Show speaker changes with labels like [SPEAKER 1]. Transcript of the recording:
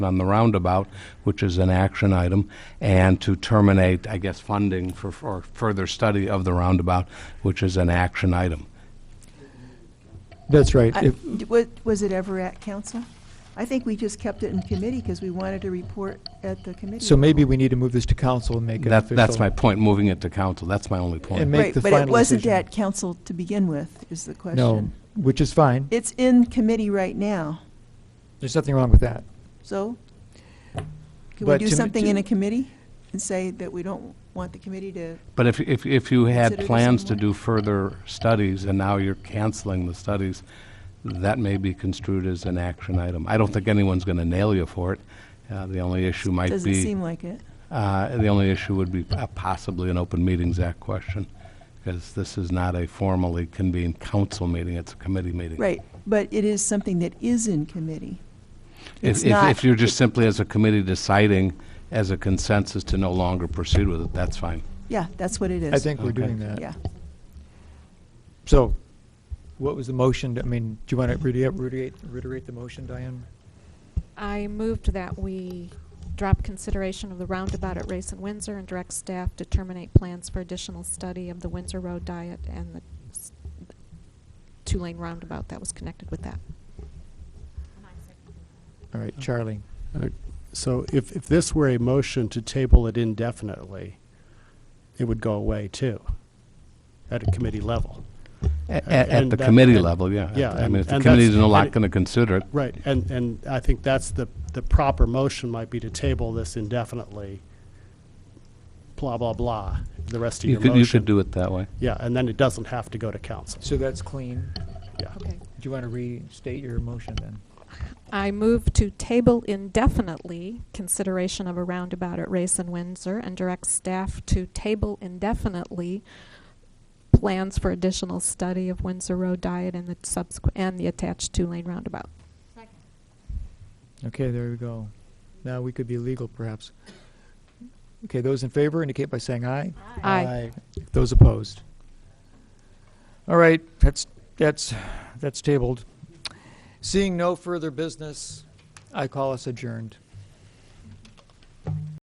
[SPEAKER 1] on the roundabout, which is an action item, and to terminate, I guess, funding for, for further study of the roundabout, which is an action item.
[SPEAKER 2] That's right.
[SPEAKER 3] I-
[SPEAKER 2] If-
[SPEAKER 3] d- wa- Was it ever at council? I think we just kept it in committee because we wanted to report at the committee.
[SPEAKER 2] So maybe we need to move this to council and make it
[SPEAKER 1] That,
[SPEAKER 2] official.
[SPEAKER 1] that's my point, moving it to council, that's my only
[SPEAKER 2] And
[SPEAKER 1] point.
[SPEAKER 2] ma- make
[SPEAKER 3] Right,
[SPEAKER 2] the
[SPEAKER 3] But it
[SPEAKER 2] final
[SPEAKER 3] wasn't
[SPEAKER 2] decision.
[SPEAKER 3] at council to begin with, is the question.
[SPEAKER 2] No, which is fine.
[SPEAKER 3] It's in committee right now,
[SPEAKER 2] There's nothing wrong with that.
[SPEAKER 3] so can we
[SPEAKER 2] But
[SPEAKER 3] do
[SPEAKER 2] to m-
[SPEAKER 3] something
[SPEAKER 2] to-
[SPEAKER 3] in a committee and say that we don't want the committee to,
[SPEAKER 1] But if, if, if you had
[SPEAKER 3] Consider this
[SPEAKER 1] plans to
[SPEAKER 3] somewhat.
[SPEAKER 1] do further studies, and now you're canceling the studies, that may be construed as an action item. I don't think anyone's gonna nail you for it. Uh, the only issue might be.
[SPEAKER 3] doesn't seem like it.
[SPEAKER 1] Uh, The only issue would be uh, possibly an Open Meetings Act question, because this is not a formally convened council meeting, it's a committee meeting.
[SPEAKER 3] Right, but it is something that is in committee.
[SPEAKER 1] If-
[SPEAKER 3] It's
[SPEAKER 1] if-
[SPEAKER 3] not-
[SPEAKER 1] If you're just simply as a committee deciding as a consensus to no longer proceed with it, that's fine.
[SPEAKER 3] Yeah, that's what it is.
[SPEAKER 2] I think we're
[SPEAKER 1] Okay.
[SPEAKER 2] doing that.
[SPEAKER 3] Yeah.
[SPEAKER 2] So what was the motion? I mean, do you want to reiterate, reiterate the motion, Diane?
[SPEAKER 4] I moved that we drop consideration of the roundabout at Race and Windsor and direct staff to terminate plans for additional study of the Windsor Road diet and the s- two-lane roundabout that was connected with that.
[SPEAKER 2] All right, Charlie.
[SPEAKER 5] So if, if this were a motion to table it indefinitely, it would go away too, at a committee level.
[SPEAKER 1] A- a- At
[SPEAKER 5] and
[SPEAKER 1] the
[SPEAKER 5] that-
[SPEAKER 1] committee
[SPEAKER 5] and-
[SPEAKER 1] level, yeah.
[SPEAKER 5] yeah,
[SPEAKER 1] I
[SPEAKER 5] and-
[SPEAKER 1] mean, if the
[SPEAKER 5] and
[SPEAKER 1] committee's
[SPEAKER 5] that's-
[SPEAKER 1] not
[SPEAKER 5] and it-
[SPEAKER 1] going to consider it,
[SPEAKER 5] Right, and, and I think that's the, the proper motion might be to table this indefinitely, blah, blah, blah, the rest of
[SPEAKER 1] you
[SPEAKER 5] your
[SPEAKER 1] could,
[SPEAKER 5] motion.
[SPEAKER 1] you could do it that way.
[SPEAKER 5] Yeah, and then it doesn't have to go to council,
[SPEAKER 2] So that's clean.
[SPEAKER 5] yeah.
[SPEAKER 4] Okay.
[SPEAKER 2] Do you want to restate your motion then?
[SPEAKER 4] I move to table indefinitely consideration of a roundabout at Race and Windsor and direct staff to table indefinitely plans for additional study of Windsor Road diet and the subsequent, and the attached two-lane roundabout.
[SPEAKER 2] Okay, there we go. Now we could be legal perhaps. Okay, those in favor indicate by saying aye.
[SPEAKER 4] Aye.
[SPEAKER 2] Those opposed? All right, that's, that's, that's tabled. Seeing no further business, I call us adjourned.